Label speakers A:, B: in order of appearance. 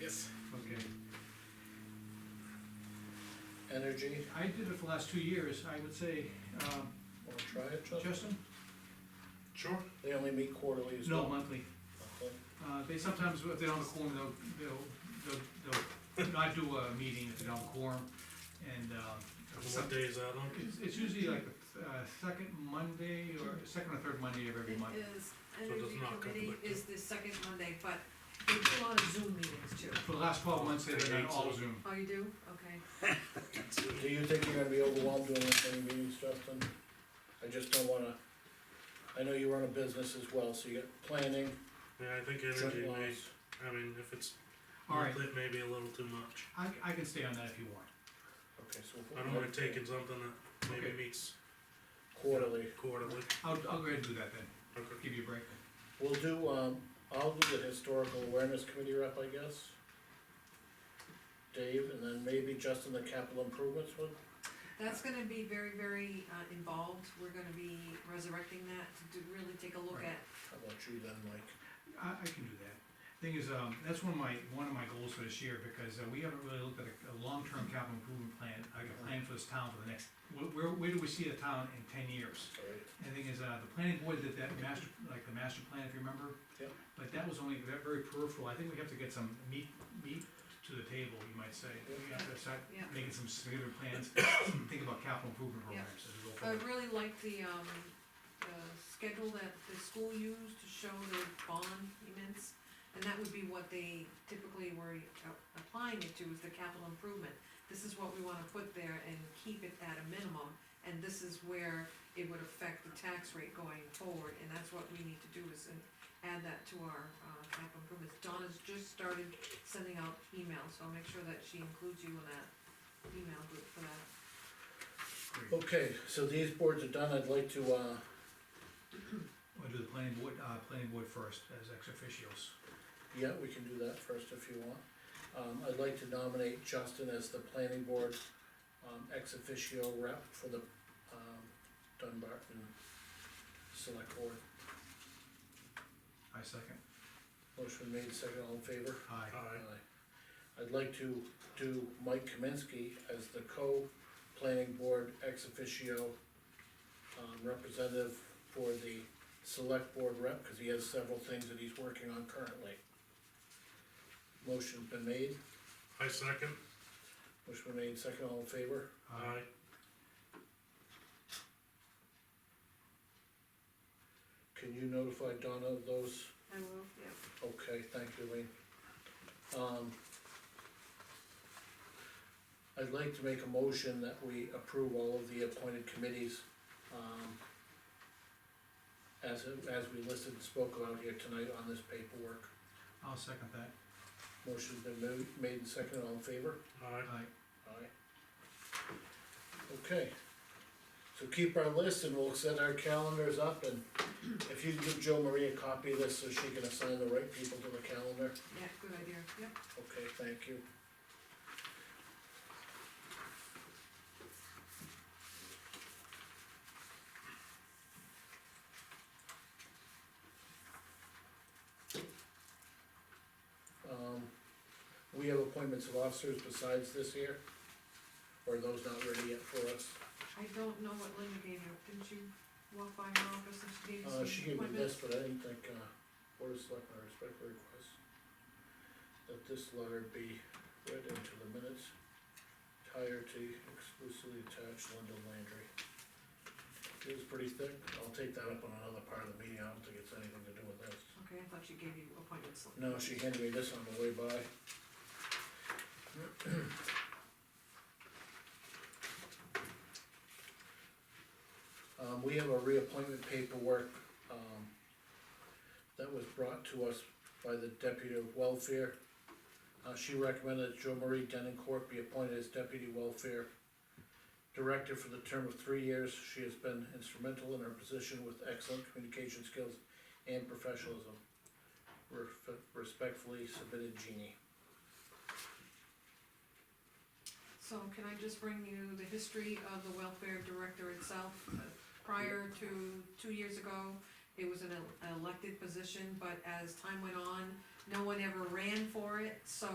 A: Yes.
B: Okay,
A: Energy,
B: I did it for the last two years, I would say, um,
A: wanna try it, Justin?
B: Justin?
C: Sure.
A: They only meet quarterly as
B: No,
A: well.
B: monthly,
A: Okay.
B: uh, they sometimes, if they don't have a quorum, they'll, they'll, they'll, they'll not do a meeting if they don't have a quorum, and, um.
C: What day is that on?
B: It's, it's usually like the, uh, second Monday or second or third Monday of every
D: It
B: month,
D: is,
C: it does
D: energy
C: not
D: committee
C: conflict,
D: is the second Monday, but they do a lot of Zoom meetings too.
B: for the last twelve months, they've done all Zoom.
D: Oh, you do? Okay.
A: Do you think you're gonna be overwhelmed doing this many meetings, Justin? I just don't wanna, I know you run a business as well, so you got planning,
C: Yeah, I think energy
A: joint
C: may,
A: loss.
C: I mean, if it's,
B: All right.
C: monthly, it may be a little too much.
B: I, I can stay on that if you want,
A: Okay, so.
C: I don't wanna take in something that maybe
B: Okay.
C: meets
A: Quarterly.
C: quarterly.
B: I'll, I'll go ahead and do that then,
C: Okay.
B: give you a break.
A: We'll do, um, I'll do the historical awareness committee rep, I guess. Dave, and then maybe Justin, the capital improvements one,
D: That's gonna be very, very uh, involved, we're gonna be resurrecting that to do- really take a look
B: Right.
D: at.
A: how about you then, Mike?
B: I, I can do that. Thing is, um, that's one of my, one of my goals for this year, because uh, we haven't really looked at a, a long-term capital improvement plan, like a plan for this town for the next, where- where, where do we see the town in ten years?
A: Alright,
B: And the thing is, uh, the planning board did that master, like the master plan, if you remember?
A: Yep.
B: But that was only, that very peripheral, I think we have to get some meat, meat to the table, you might say. We have to start
D: Yeah.
B: making some significant plans, think about capital improvement
D: Yeah.
B: programs as we go
D: I
B: forward.
D: really like the, um, uh, schedule that the school used to show the bond payments, and that would be what they typically were a- applying it to, is the capital improvement. This is what we wanna put there and keep it at a minimum, and this is where it would affect the tax rate going forward, and that's what we need to do is and add that to our, uh, capital improvements. Donna's just started sending out emails, so I'll make sure that she includes you in that email group for that.
B: Great.
A: Okay, so these boards are done, I'd like to, uh,
B: We'll do the planning board, uh, planning board first, as ex officios.
A: Yeah, we can do that first if you want. Um, I'd like to nominate Justin as the planning board, um, ex officio rep for the, um, Dunbarton Select Board.
B: I second.
A: Motion made, second, all in favor?
B: Aye.
C: Alright,
A: I'd like to do Mike Kaminsky as the co-planning board ex officio, um, representative for the select board rep, cause he has several things that he's working on currently. Motion's been made.
C: I second.
A: Motion made, second, all in favor?
B: Aye.
C: Aye.
A: Can you notify Donna of those?
D: I will, yeah.
A: Okay, thank you, Lean. Um, I'd like to make a motion that we approve all of the appointed committees, um, as, as we listed and spoke about here tonight on this paperwork.
B: I'll second that.
A: Motion's been ma- made and seconded, all in favor?
C: Aye.
B: Aye.
A: Aye. Okay, so keep our list and we'll set our calendars up and if you can give Joe Marie a copy of this so she can assign the right people to the calendar,
D: Yeah, good idea, yep.
A: okay, thank you. Um, we have appointments of officers besides this year? Or are those not ready yet for us?
D: I don't know what Linda gave you, didn't you walk by her office and she gave you
A: Uh, she
D: some
A: gave me
D: appointments?
A: this, but I didn't think, uh, Board of Selectmen respect the request that this letter be read into the minutes, entirety exclusively attached Linda Landry. It was pretty thick, I'll take that up on another part of the meeting, I don't think it's anything to do with this.
D: Okay, I thought she gave you appointments.
A: No, she handed me this on the way by. Um, we have a reappointment paperwork, um, that was brought to us by the deputy of welfare. Uh, she recommended that Joe Marie Denoncourt be appointed as deputy welfare director for the term of three years. She has been instrumental in her position with excellent communication skills and professionalism. Ref- Respectfully submitted Jeannie.
D: So can I just bring you the history of the welfare director itself? Uh, Prior to two years ago, it was an el- elected position, but as time went on, no one ever ran for it, so